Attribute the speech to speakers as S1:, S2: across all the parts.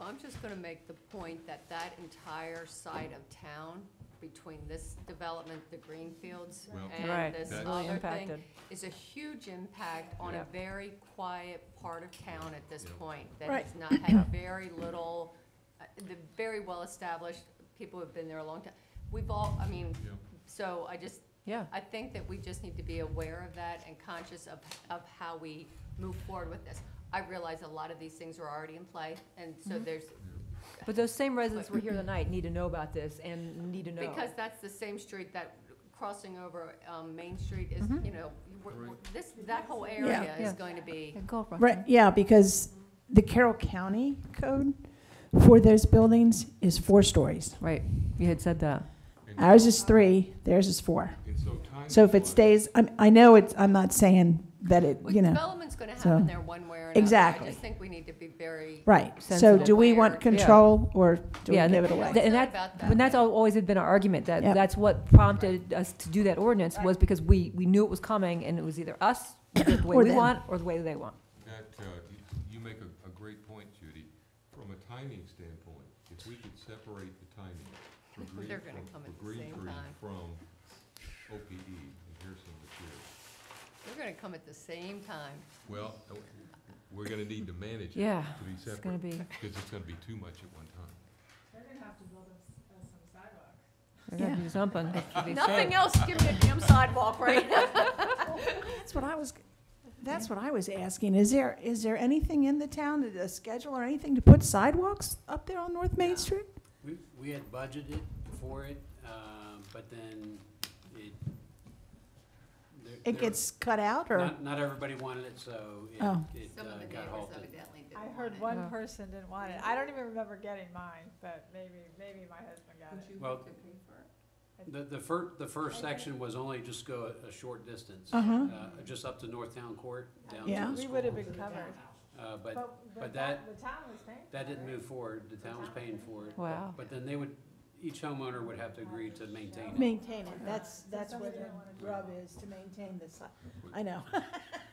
S1: I'm just gonna make the point that that entire side of town, between this development, the Greenfields,
S2: Well,
S1: and
S3: Right,
S1: this
S2: That's-
S3: really
S1: other
S3: impacted.
S1: thing, is a huge impact on a
S3: Yeah.
S1: very quiet part of town at this
S2: Yeah.
S1: point. That
S3: Right.
S1: has not had very little, uh, the very well-established, people have been there a long time. We've all, I mean,
S2: Yeah.
S1: so I just,
S3: Yeah,
S1: I think that we just need to be aware of that and conscious of, of how we move forward with this. I realize a lot of these things are already in play, and
S4: Mm-hmm.
S1: so there's,
S3: but those same residents who were here tonight need to know about this and need to know.
S1: because that's the same street that crossing over, um, Main Street is,
S4: Mm-hmm.
S1: you know, we're- we're- this, that whole area
S3: Yeah.
S1: is going to be,
S4: Right, yeah, because the Carroll County code for those buildings is four stories.
S3: Right, you had said that.
S4: Ours is three, theirs is four.
S2: And so time.
S4: So if it
S2: flies.
S4: stays, I'm, I know it's, I'm not saying that it,
S1: well,
S4: you know,
S1: development's gonna
S4: so-
S1: happen there one way or another. I
S4: Exactly.
S1: just think we need to be very,
S4: right. So
S3: Sensitive.
S4: do we
S1: Yeah.
S4: want control or do we
S3: Yeah,
S4: give it
S1: No,
S4: away?
S1: it's
S3: And
S1: not
S3: that-
S1: about that.
S3: And that's al- always had been our argument, that,
S4: Yep.
S3: that's what prompted us to do that ordinance, was because we, we knew it was coming, and it was either us, the way
S4: Or
S3: we
S4: them.
S3: want, or the way they want.
S2: That, uh, you- you make a, a great point, Judy. From a timing standpoint, if we could separate the timing for green,
S1: They're gonna
S2: from-
S1: come
S2: for
S1: at the
S2: green
S1: same
S2: tree
S1: time.
S2: from OPE, and here's some material.
S1: we're gonna come at the same time.
S2: Well, uh, we're gonna need to manage it
S3: Yeah,
S2: to be
S3: It's gonna
S2: separate,
S3: be,
S2: because it's gonna be too much at one time.
S3: there's gonna be something. to be said.
S1: Nothing else, give me a damn sidewalk right now.
S4: That's what I was, that's what I was asking. Is there, is there anything in the town, a schedule or anything to put sidewalks up there on North Main Street?
S5: We, we had budgeted for it, um, but then it. there-
S4: It
S5: there-
S4: gets cut out or?
S5: Not, not everybody wanted it, so it,
S4: Oh.
S5: it
S1: Some of
S5: uh,
S1: the
S5: got
S1: neighbors
S5: halted.
S1: evidently didn't
S6: I
S1: want
S6: heard
S1: it.
S3: Yeah.
S6: one person didn't want it. I don't even remember getting mine, but maybe, maybe my husband got it.
S5: Well, the, the fir, the first section was only just go a, a short distance.
S4: Uh-huh.
S5: uh, Just up to North Town Court, down
S4: Yeah.
S5: to the
S6: We would have
S5: school.
S6: been covered,
S5: Uh, but
S6: but,
S5: but
S6: but that, the town was paying.
S5: that
S6: for it.
S5: didn't move forward, the town was paying for it.
S3: Wow.
S5: But then they would, each homeowner would have to agree to maintain it.
S4: Maintain it, that's, that's where the rub is, to maintain the si- I know.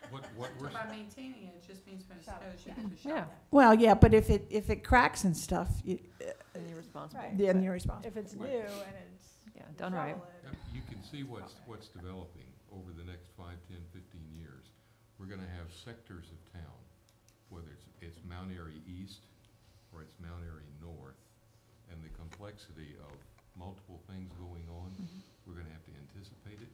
S2: What, what we're,
S7: By maintaining it, it just means when it
S6: Shop.
S7: snows, you can just
S3: Yeah,
S7: shop.
S4: Well, yeah, but if it, if it cracks and stuff, you,
S3: and you're responsible.
S6: Right.
S4: then you're responsible.
S6: If it's new
S2: Right.
S6: and it's.
S3: Yeah, done right.
S6: shovel it.
S2: uh, you can see what's, what's developing over the next five, ten, fifteen years. We're gonna have sectors of town, whether it's, it's Mount Airy East or it's Mount Airy North, and the complexity of multiple things going on,
S3: Mm-hmm.
S2: we're gonna have to anticipate it.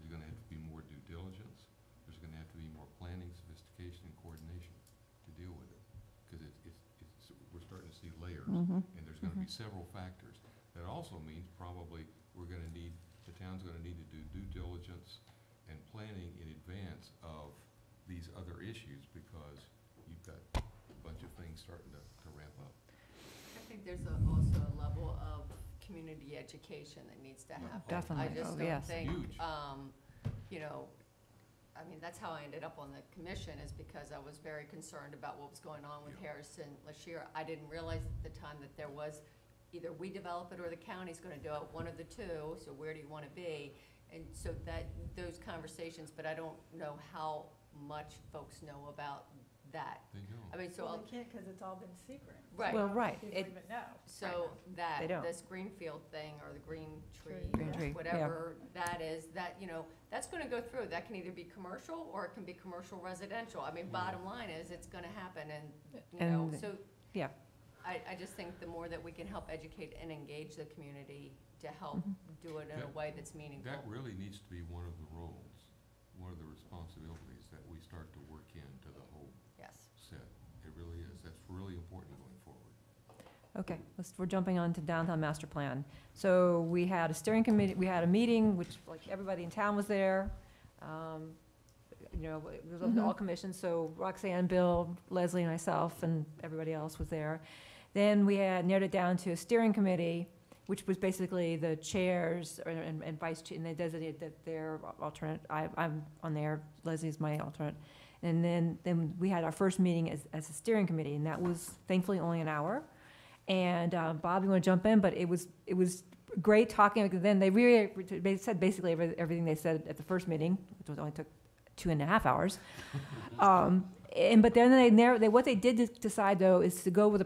S2: There's gonna have to be more due diligence. There's gonna have to be more planning, sophistication, and coordination to deal with it. Cause it's, it's, it's, we're starting to see layers,
S3: Mm-hmm.
S2: and there's gonna be several factors. That also means probably we're gonna need, the town's gonna need to do due diligence and planning in advance of these other issues, because you've got a bunch of things starting to, to ramp up.
S1: I think there's a- also a level of community education that needs to happen.
S3: Definitely.
S1: I just
S3: Oh,
S1: don't
S3: yes.
S1: think,
S2: Huge.
S1: um, you know, I mean, that's how I ended up on the commission, is because I was very concerned about what was going on with
S2: Yeah.
S1: Harrison Lashir. I didn't realize at the time that there was, either we develop it or the county's gonna do it, one of the two, so where do you wanna be? And so that, those conversations, but I don't know how much folks know about that.
S2: They don't.
S1: I mean, so,
S6: Well,
S1: I'll
S6: we can't because it's all been secret.
S1: right.
S3: Well, right,
S6: People
S3: it-
S6: even know.
S1: So that,
S3: They don't.
S1: this greenfield thing or the green
S6: Tree,
S1: tree,
S3: Green
S1: or
S3: tree, yeah.
S1: whatever that is, that, you know, that's gonna go through. That can either be commercial or it can be commercial residential. I mean, bottom line is, it's gonna happen and, you know,
S3: And-
S1: so.
S3: yeah.
S1: I, I just think the more that we can help educate and engage the community to help
S6: Mm-hmm.
S1: do it in
S2: That-
S1: a way that's meaningful.
S2: That really needs to be one of the roles, one of the responsibilities that we start to work into the whole
S1: Yes.
S2: set. It really is, that's really important going forward.
S3: Okay, let's, we're jumping on to downtown master plan. So we had a steering committee, we had a meeting, which, like, everybody in town was there. Um, You know, it was open to all commissions, so Roxanne, Bill, Leslie, and myself, and everybody else was there. Then we had narrowed it down to a steering committee, which was basically the chairs or- and, and vice, chair, and they designated that their alternate, I, I'm on there, Leslie's my alternate. And then, then we had our first meeting as, as a steering committee, and that was thankfully only an hour. And um, Bob, you want to jump in? But it was it was great talking. because Then they really they said basically every- everything they said at the first meeting, which was only took two and a half hours. um, and but then they narrow, they what they did de- decide though is to go with a